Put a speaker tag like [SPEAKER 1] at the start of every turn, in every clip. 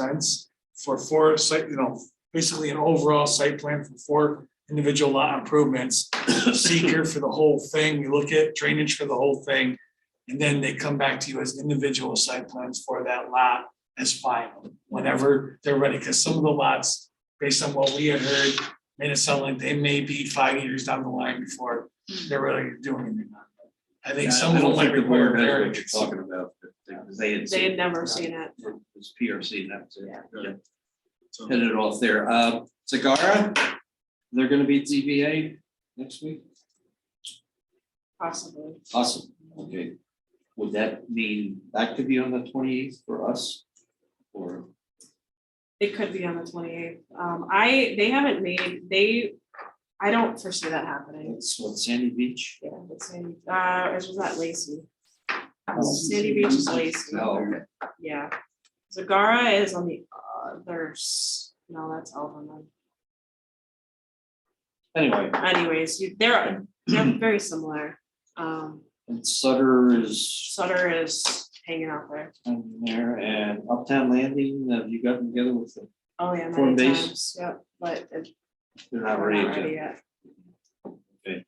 [SPEAKER 1] sense for four site, you know, basically an overall site plan for four individual lot improvements. Seeker for the whole thing, we look at drainage for the whole thing, and then they come back to you as individual site plans for that lot as final, whenever they're ready, because some of the lots, based on what we had heard, made it sound like they may be five years down the line before they're ready to do anything. on it. I think
[SPEAKER 2] Yeah,
[SPEAKER 1] some of
[SPEAKER 2] I
[SPEAKER 1] them
[SPEAKER 2] don't
[SPEAKER 1] might
[SPEAKER 2] think the board
[SPEAKER 1] require
[SPEAKER 2] knows what you're
[SPEAKER 1] variance.
[SPEAKER 2] talking about, but they- they had.
[SPEAKER 3] They
[SPEAKER 2] seen
[SPEAKER 3] had
[SPEAKER 2] it.
[SPEAKER 3] never seen it.
[SPEAKER 2] It was PRC, and that was
[SPEAKER 3] Yeah.
[SPEAKER 2] it. Yep. Hit it off there. Uh, Sagara, they're gonna be at ZBA next week?
[SPEAKER 3] Possibly.
[SPEAKER 2] Awesome, okay. Would that mean that could be on the twenty eighth for us? Or,
[SPEAKER 3] It could be on the twenty eighth. Um, I, they haven't made, they, I don't foresee that happening.
[SPEAKER 2] that's what Sandy Beach?
[SPEAKER 3] Yeah, but Sandy, uh, or was that Lacey? Sandy Beach is Lacey,
[SPEAKER 2] Oh, okay.
[SPEAKER 3] yeah. Zagara is on the other, s- no, that's Alvin.
[SPEAKER 2] Anyway,
[SPEAKER 3] Anyways, you, they're, they're very similar. Um,
[SPEAKER 2] and Sutter is
[SPEAKER 3] Sutter is hanging out there.
[SPEAKER 2] on there and Uptown Landing, have you gotten together with them?
[SPEAKER 3] Oh, yeah, many
[SPEAKER 2] Form base.
[SPEAKER 3] times, yep, but it-
[SPEAKER 2] They're
[SPEAKER 3] they're
[SPEAKER 2] not
[SPEAKER 3] not
[SPEAKER 2] ready yet.
[SPEAKER 3] ready yet.
[SPEAKER 2] Okay.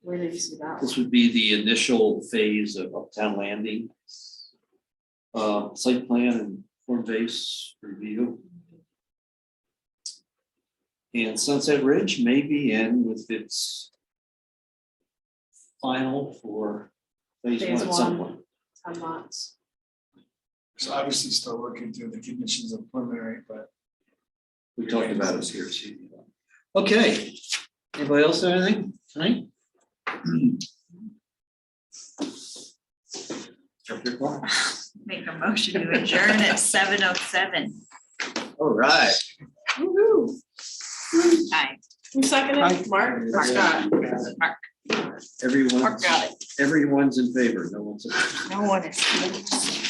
[SPEAKER 3] Where did you see that?
[SPEAKER 2] This would be the initial phase of Uptown Landing. Uh, site plan and form base review. And Sunset Ridge may be in with its. Final for phase one
[SPEAKER 3] Phase
[SPEAKER 2] at some
[SPEAKER 3] one.
[SPEAKER 2] point.
[SPEAKER 3] ten months.
[SPEAKER 1] So obviously still working through the conditions of preliminary, but
[SPEAKER 2] We talked about it here. so you know. Okay, anybody else have anything tonight? Chapter clock.
[SPEAKER 4] Make a motion to adjourn at seven oh seven.
[SPEAKER 2] All right.
[SPEAKER 3] Woo-hoo.
[SPEAKER 4] Hi,
[SPEAKER 3] Who seconded? Mark?
[SPEAKER 2] Mark.
[SPEAKER 3] Scott?
[SPEAKER 4] Mark,
[SPEAKER 2] Everyone's,
[SPEAKER 4] Mark got it.
[SPEAKER 2] everyone's in favor, no one's.
[SPEAKER 4] No one is.